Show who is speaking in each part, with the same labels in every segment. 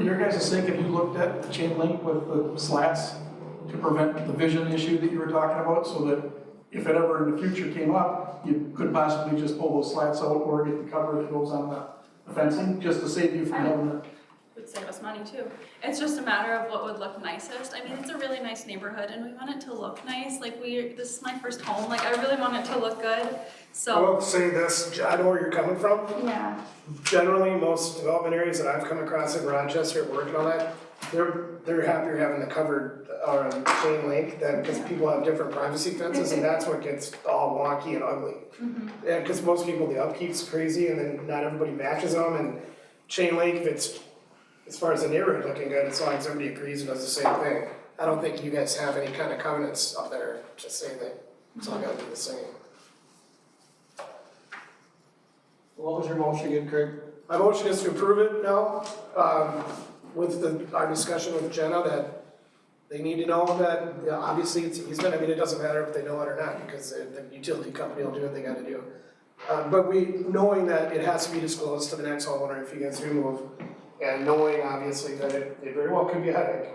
Speaker 1: your guys' sake, have you looked at the chain link with the slats to prevent the vision issue that you were talking about, so that if it ever in the future came up, you could possibly just pull those slats out or get the cover that goes on the fencing, just to save you from having to
Speaker 2: would save us money too. It's just a matter of what would look nicest. I mean, it's a really nice neighborhood and we want it to look nice. Like we, this is my first home, like I really want it to look good,
Speaker 3: I
Speaker 2: so.
Speaker 3: will say this, I know where you're coming from.
Speaker 2: Yeah.
Speaker 3: Generally, most development areas that I've come across in Rochester at work and all that, they're, they're happier having the covered, uh, chain link than, because people have different privacy fences and that's what gets all wonky and ugly. Yeah, because most people, the upkeep's crazy and then not everybody matches them and chain link, if it's, as far as the neighborhood looking good, as long as everybody agrees and does the same thing. I don't think you guys have any kind of covenants up there to say that it's all gotta be the same.
Speaker 4: What was your motion again, Craig?
Speaker 3: My motion is to approve it now, um, with the, our discussion with Jenna that they need to know that, you know, obviously it's easement, I mean, it doesn't matter if they know it or not, because the, the utility company will do what they gotta do. Uh, but we, knowing that it has to be disclosed to the next homeowner if you guys do move, and knowing obviously that it, it very well could be a headache.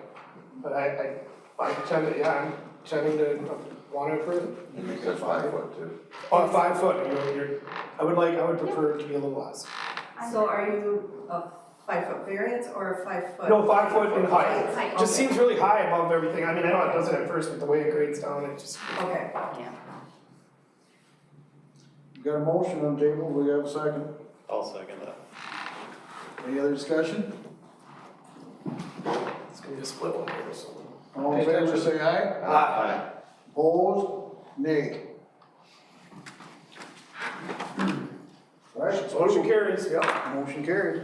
Speaker 3: But I, I, I tend to, yeah, I'm tending to wanna approve it.
Speaker 5: You can say five foot too.
Speaker 3: On five foot, you know, you're, I would like, I would prefer it to be a little less.
Speaker 6: So are you a five foot variance or a five foot?
Speaker 3: No, five foot in height.
Speaker 6: Height,
Speaker 3: It just
Speaker 6: okay.
Speaker 3: seems really high above everything, I mean, I know it does it at first, but the way it grades down, it just,
Speaker 6: Okay.
Speaker 4: We got a motion on the table, we have a second.
Speaker 7: I'll second that.
Speaker 4: Any other discussion?
Speaker 3: it's gonna be a split one here, so.
Speaker 4: All in favor, say aye.
Speaker 7: Aye.
Speaker 4: Opposed, nay. Alright,
Speaker 3: Motion carries, yeah.
Speaker 4: motion carried.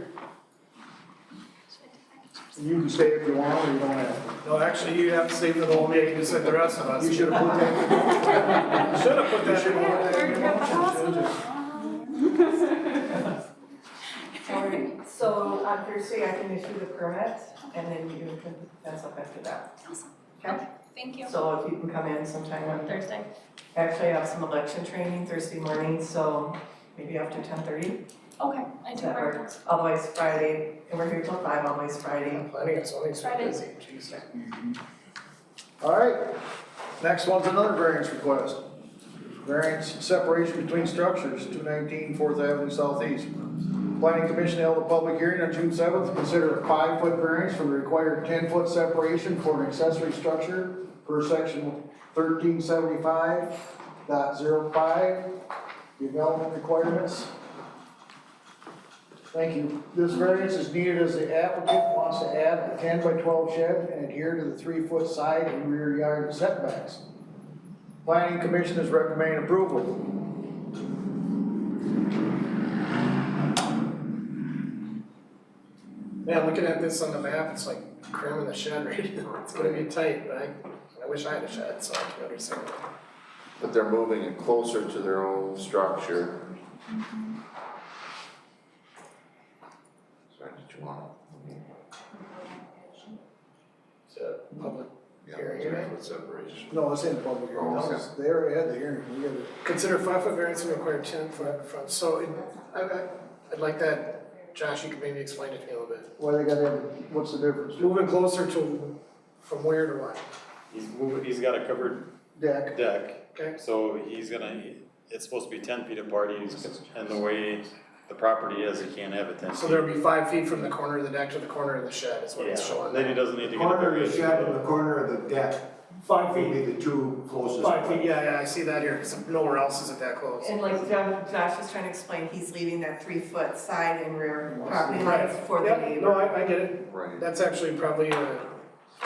Speaker 4: You can stay if you want, or you don't have
Speaker 3: No, actually, you have to save the whole meeting, you said the rest of us.
Speaker 4: to. You should have put that,
Speaker 3: Should have put that in.
Speaker 6: Sorry. So on Thursday, I can issue the permit and then you can fence up after that.
Speaker 2: Awesome.
Speaker 6: Okay?
Speaker 2: Thank you.
Speaker 6: So if you can come in sometime on,
Speaker 2: Thursday.
Speaker 6: actually I have some election training Thursday morning, so maybe after ten thirty.
Speaker 2: Okay, I do
Speaker 6: That
Speaker 2: work.
Speaker 6: works. Otherwise Friday, and we're here till five, always Friday.
Speaker 3: Planning and zoning's
Speaker 2: Friday.
Speaker 3: busy, jeez.
Speaker 4: alright. Next one's another variance request. Variance separation between structures, 219 Fourth Avenue Southeast. Planning Commission held a public hearing on June seventh, consider a five-foot variance from the required ten-foot separation for an accessory structure per section thirteen seventy-five dot zero five, development requirements. Thank you. This variance is needed as the applicant wants to add a ten by twelve shed and adhere to the three-foot side and rear yard setbacks. Planning Commission is recommending approval.
Speaker 3: Man, looking at this on the map, it's like cramming the shed right now, it's gonna be tight, but I, I wish I had a shed, so I can understand.
Speaker 5: But they're moving it closer to their own structure. Sorry, did you want?
Speaker 3: It's a public
Speaker 5: Yeah,
Speaker 3: Here, here.
Speaker 5: with separation.
Speaker 4: No, it's in the public hearing. That was- They already had the hearing. We gotta-
Speaker 3: Consider five foot variance and require ten foot up front, so it- I, I, I'd like that, Josh, you could maybe explain it to me a little bit.
Speaker 4: Why they gotta have, what's the difference?
Speaker 3: Moving closer to, from where to what,
Speaker 7: He's moving, he's got a covered
Speaker 4: Deck,
Speaker 7: deck,
Speaker 3: okay?
Speaker 7: so he's gonna, it's supposed to be ten feet apart, he's, and the way the property is, he can't have it ten feet.
Speaker 3: So there'll be five feet from the corner of the deck to the corner of the shed is what it's
Speaker 7: Yeah,
Speaker 3: showing.
Speaker 7: then he doesn't need to get a
Speaker 8: Corner of the
Speaker 7: variance.
Speaker 8: shed and the corner of the deck
Speaker 3: Five
Speaker 8: would be the two closest.
Speaker 3: Five feet, yeah, yeah, I see that here, cause nowhere else is it that close.
Speaker 6: And like Jo- Josh was trying to explain, he's leaving that three foot side and rear property lines for the
Speaker 3: Yep, No,
Speaker 6: neighbor.
Speaker 3: I, I get it,
Speaker 5: Right.
Speaker 3: that's actually probably uh,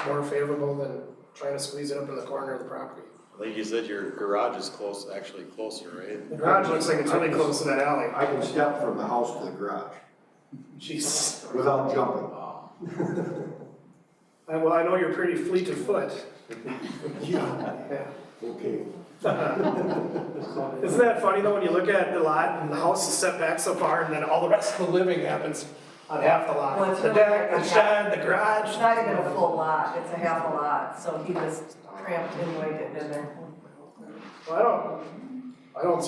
Speaker 3: more favorable than trying to squeeze it up in the corner of the property.
Speaker 7: Like you said, your garage is close, actually closer, right?
Speaker 3: The garage looks like it's really close to that alley.
Speaker 8: I can step from the house to the garage
Speaker 3: Jesus.
Speaker 8: without jumping.
Speaker 3: Uh, Well, I know you're pretty fleet of foot.
Speaker 8: Yeah,
Speaker 3: Yeah.
Speaker 8: okay.
Speaker 3: Isn't that funny though, when you look at the lot and the house is set back so far and then all the rest of the living happens on half the
Speaker 6: Well,
Speaker 3: lot?
Speaker 6: it's
Speaker 3: The
Speaker 6: really
Speaker 3: deck,
Speaker 6: like
Speaker 3: the
Speaker 6: a
Speaker 3: shed, the garage.
Speaker 6: It's not even a full lot, it's a half a lot, so he just cramped in, like, it in there.
Speaker 3: Well, I don't, I don't